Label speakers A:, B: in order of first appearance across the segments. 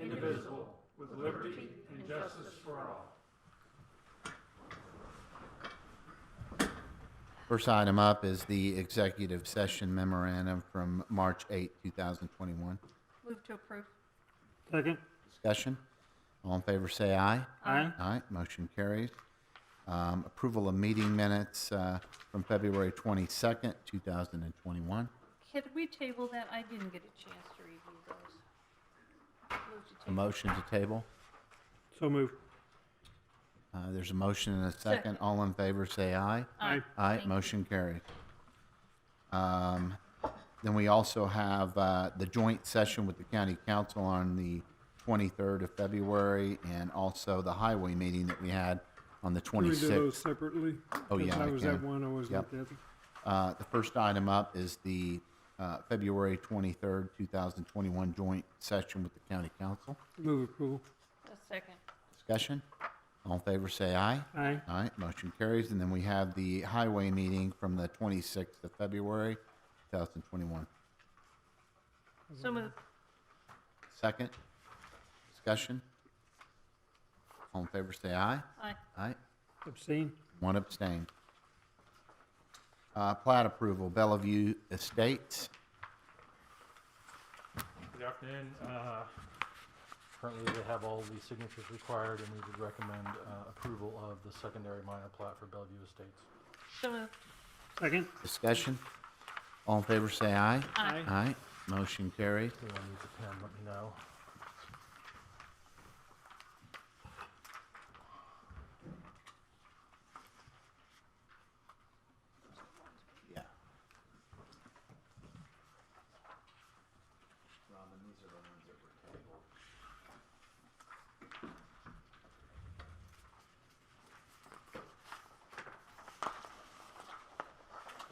A: indivisible, with liberty and justice for all.
B: First item up is the executive session memorandum from March 8, 2021.
C: Move to approve.
A: Second.
B: Discussion? All in favor, say aye.
A: Aye.
B: Aye, motion carries. Um, Approval of meeting minutes uh, from February 22nd, 2021.
C: Can we table that? I didn't get a chance to review those. Move to
B: A
C: table.
B: motion to table.
A: So moved.
B: Uh, There's a motion and a second.
C: Second.
B: All in favor, say aye.
A: Aye.
B: Aye,
C: Thank you.
B: motion carried. Um, Then we also have uh, the joint session with the county council on the 23rd of February, and also the highway meeting that we had on the
D: Can we do those
B: 26th.
D: separately?
B: Oh,
D: Because
B: yeah,
D: I
B: I
D: was
B: can.
D: at one, I was at
B: Yep.
D: the other.
B: Uh, The first item up is the uh, February 23rd, 2021 joint session with the county council.
D: Move approval.
C: A second.
B: Discussion? All in favor, say aye.
D: Aye.
B: All right, motion carries. And then we have the highway meeting from the 26th of February, 2021.
C: So moved.
B: Second, discussion. All in favor, say aye.
C: Aye.
B: Aye.
D: Abstain.
B: One abstain. Uh, plat approval, Bellevue Estates.
E: Good afternoon. Uh, Currently, they have all the signatures required, and we would recommend uh, approval of the secondary minor plat for Bellevue Estates.
C: So moved.
D: Second.
B: Discussion. All in favor, say aye.
C: Aye.
B: Aye. Motion carries.
E: If anyone needs a pen, let me know.
B: Yeah.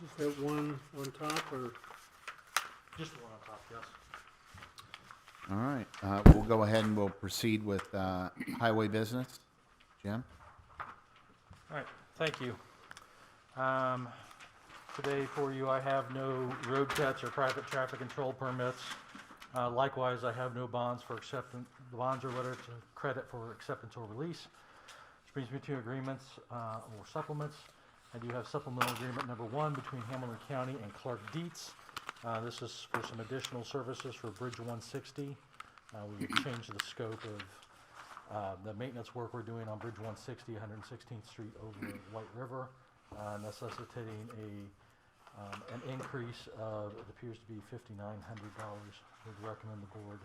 D: Just that one on top or
E: Just the one on top, yes.
B: All right, uh, we'll go ahead and we'll proceed with, uh, highway business. Jim?
E: All right, thank you. Um, Today for you, I have no road cuts or private traffic control permits. Uh, Likewise, I have no bonds for acceptance, bonds or letters of credit for acceptance or release, which brings me to agreements uh, or supplements. I do have supplemental agreement number one between Hamilton County and Clark Dietz. Uh, This is for some additional services for Bridge 160. Uh, We would change the scope of uh, the maintenance work we're doing on Bridge 160, 116th Street over White River, uh, necessitating a, um, an increase of, it appears to be $5,900. We'd recommend the board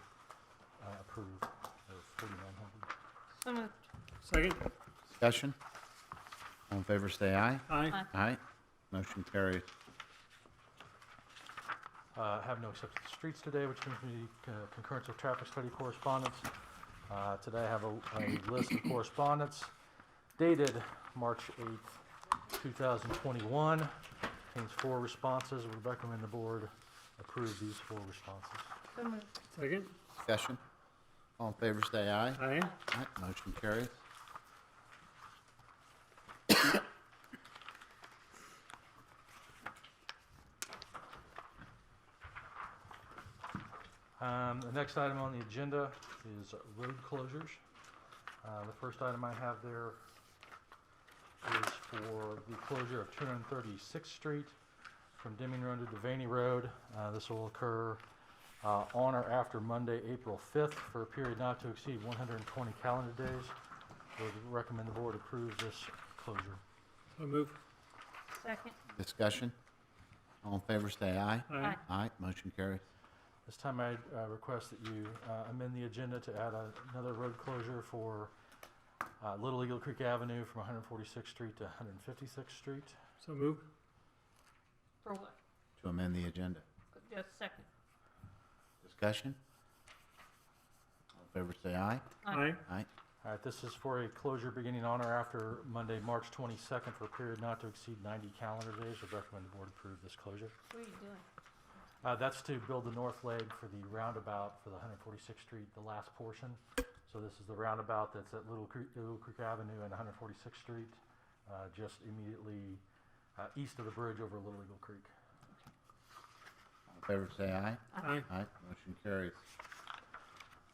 E: uh, approve of $4,900.
C: So moved.
D: second?
B: Discussion? All in favor, say aye.
D: Aye.
C: Aye.
B: Aye. Motion carries.
E: Uh, have no accepted streets today, which brings me to uh, concurrence of traffic study correspondence. Uh, Today I have a, a list of correspondence dated March 8th, 2021. Contains four responses. Would recommend the board approve these four responses.
C: So moved.
D: Second.
B: Discussion? All in favor, say aye.
D: Aye.
B: Aye, motion carries.
E: Um, The next item on the agenda is road closures. Uh, The first item I have there is for the closure of 236th Street from Deming Road to Devaney Road. Uh, This will occur uh, on or after Monday, April 5th, for a period not to exceed 120 calendar days. Would recommend the board approve this closure.
D: So move.
C: Second.
B: Discussion? All in favor, say aye.
D: Aye.
B: Aye, motion carries.
E: This time I uh, request that you uh, amend the agenda to add a- another road closure for uh, Little Eagle Creek Avenue from 146th Street to 156th Street.
D: So move.
C: For what?
B: To amend the agenda.
C: Just second.
B: Discussion? All in favor, say aye.
D: Aye.
B: Aye,
E: All right, this is for a closure beginning on or after Monday, March 22nd for a period not to exceed 90 calendar days. Would recommend the board approve this closure.
C: What are you doing?
E: Uh, That's to build the north leg for the roundabout for the 146th Street, the last portion. So this is the roundabout that's at Little Creek, Little Creek Avenue and 146th Street, uh, just immediately uh, east of the bridge over Little Eagle Creek.
B: all in favor, say aye.
D: Aye.
B: Aye, motion carries.